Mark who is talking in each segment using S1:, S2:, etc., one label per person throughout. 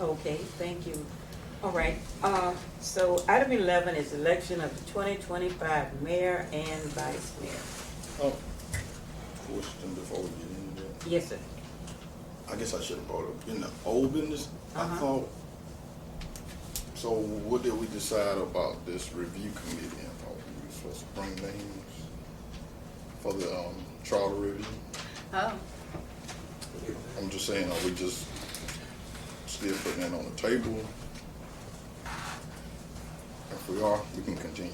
S1: Okay, thank you. All right, uh, so item eleven is election of the twenty twenty-five mayor and vice mayor.
S2: Oh, question before we get into that.
S1: Yes, sir.
S2: I guess I should have brought up, in the old business, I
S1: Uh-huh.
S2: thought, so what did we decide about this review committee? I thought we were supposed to bring names for the, um, charter review.
S3: Oh,
S2: I'm just saying, are we just still putting that on the table? If we are, we can continue.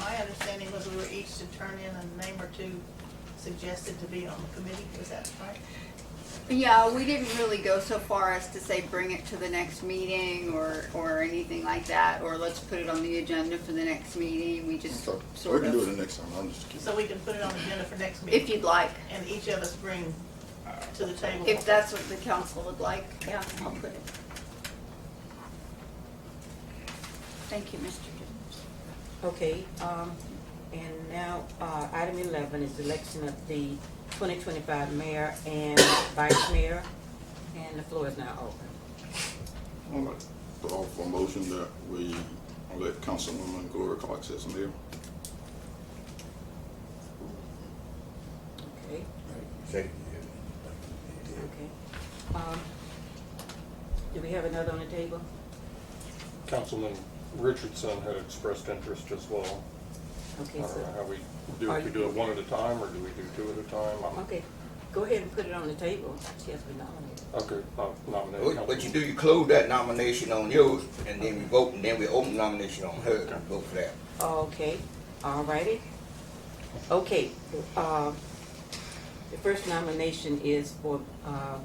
S3: my understanding was we were each to turn in a name or two suggested to be on the committee, was that right?
S4: Yeah, we didn't really go so far as to say bring it to the next meeting or, or anything like that, or let's put it on the agenda for the next meeting, we just
S2: So, so we
S4: sort
S2: can do it
S4: of,
S2: the next time, I'm just kidding.
S3: So we can put it on the agenda for next
S4: if
S3: meeting,
S4: you'd like,
S3: and each of us bring to the table.
S4: if that's what the council would like, yeah, I'll put it. Thank you, Mr. Jones.
S1: Okay, um, and now, uh, item eleven is election of the twenty twenty-five mayor and vice mayor. And the floor is now open.
S2: All right. Call for a motion that we let Councilwoman Gloria Cox as mayor.
S1: Okay,
S5: Second year.
S1: okay. Um, do we have another on the table?
S6: Councilman Richardson had expressed interest as well. I
S1: Okay,
S6: don't know
S1: so,
S6: how we do, if we do it one at a time, or do we do two at a time? I'm-
S1: okay, go ahead and put it on the table. She has been nominated.
S6: Okay, I'll nominate
S5: What, what you do, you close that nomination on yours, and then we vote, and then we open nomination on hers, and vote for that.
S1: Okay, all righty. Okay, uh, the first nomination is for uh,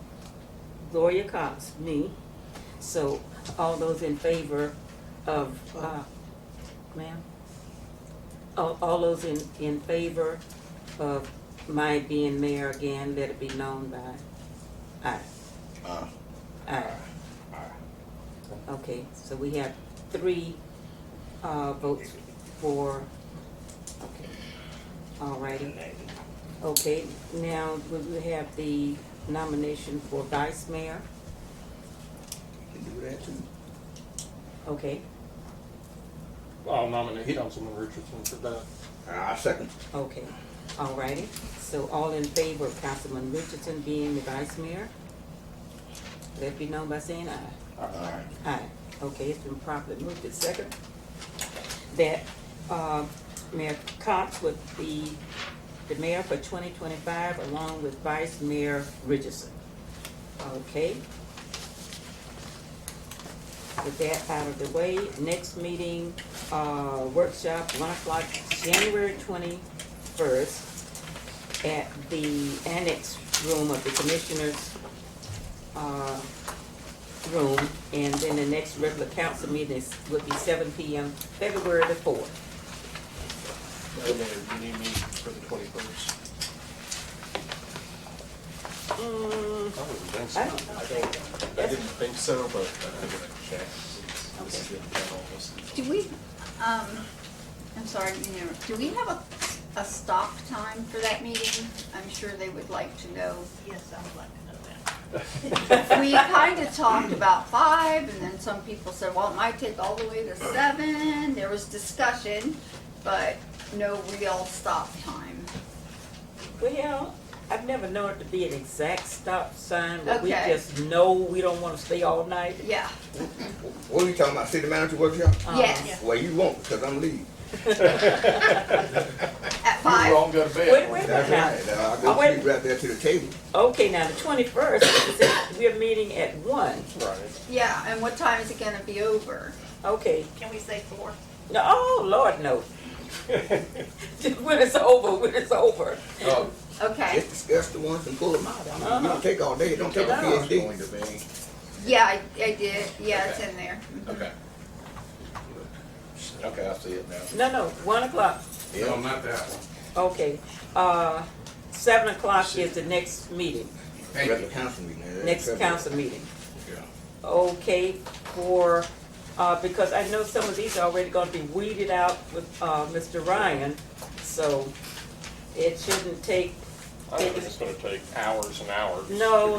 S1: Gloria Cox, me. So all those in favor of, uh, ma'am? All all those in, in favor of my being mayor again, let it be known by aye.
S2: Aye.
S1: Aye. Okay, so we have three uh, votes for, okay, all righty. Okay, now we will have the nomination for vice mayor,
S5: You can do that too.
S1: okay,
S6: I'll nominate Councilman Richardson for that.
S5: Ah, I second.
S1: okay, all righty. So all in favor of Councilman Richardson being the vice mayor? Let it be known by saying aye.
S2: Aye.
S1: Aye. Okay, it's been properly moved to second that uh, Mayor Cox would be the mayor for 2025 along with Vice Mayor Richardson. Okay. With that out of the way, next meeting, uh, workshop, 1 o'clock, January 21st at the annex room of the Commissioners' uh, room, and then the next regular council meeting is, would be seven P M, February the fourth.
S7: Madam Mayor, you need me for the twenty-first?
S1: Mm,
S6: I wouldn't think so.
S1: I don't know.
S7: I don't, I
S1: Yes.
S7: didn't think so, but I'm gonna check. since This has been done almost.
S4: Do we, um, I'm sorry, you know, do we have a, a stop time for that meeting? I'm sure they would like to know.
S3: Yes, I would like to know that.
S4: we kind of talked about five, and then some people said, well, it might take all the way to seven. There was discussion, but no real stop time.
S1: Well, I've never known it to be an exact stop sign, but we
S4: Okay.
S1: just know we don't wanna stay all night.
S4: Yeah,
S5: What are you talking about, city manager workshop?
S1: Uh,
S4: yes,
S5: Well, you won't, because I'm leaving.
S4: at
S7: You
S4: five.
S7: all go to
S1: Wait,
S7: bed.
S1: wait,
S5: That's
S1: wait,
S5: right, Now, I'll
S1: Oh, wait.
S5: go sleep right there to the table.
S1: now. Okay, now, the twenty-first, we're meeting at one,
S6: Right.
S4: Yeah, and what time is it gonna be over?
S1: okay.
S3: Can we say four?
S1: No, oh, Lord, no. When it's over, when it's over.
S5: Oh,
S4: Okay,
S5: Just discuss the ones and pull them out. I mean, you
S1: Uh-huh.
S5: don't take all day, it don't take a
S1: No.
S5: PhD.
S7: Going to be,
S4: yeah, I, I did, yeah, it's in there.
S7: okay. Okay, I see it now.
S1: No, no, one o'clock.
S5: Yeah.
S8: not that one.
S1: Okay, uh, seven o'clock is the next meeting,
S8: Thank you.
S5: Regular council meeting. yeah, that's
S1: next
S5: February.
S1: council meeting.
S5: Yeah.
S1: Okay, for, uh, because I know some of these are already gonna be weeded out with, uh, Mr. Ryan, so it shouldn't take,
S6: I think it's gonna take hours and hours.
S1: No,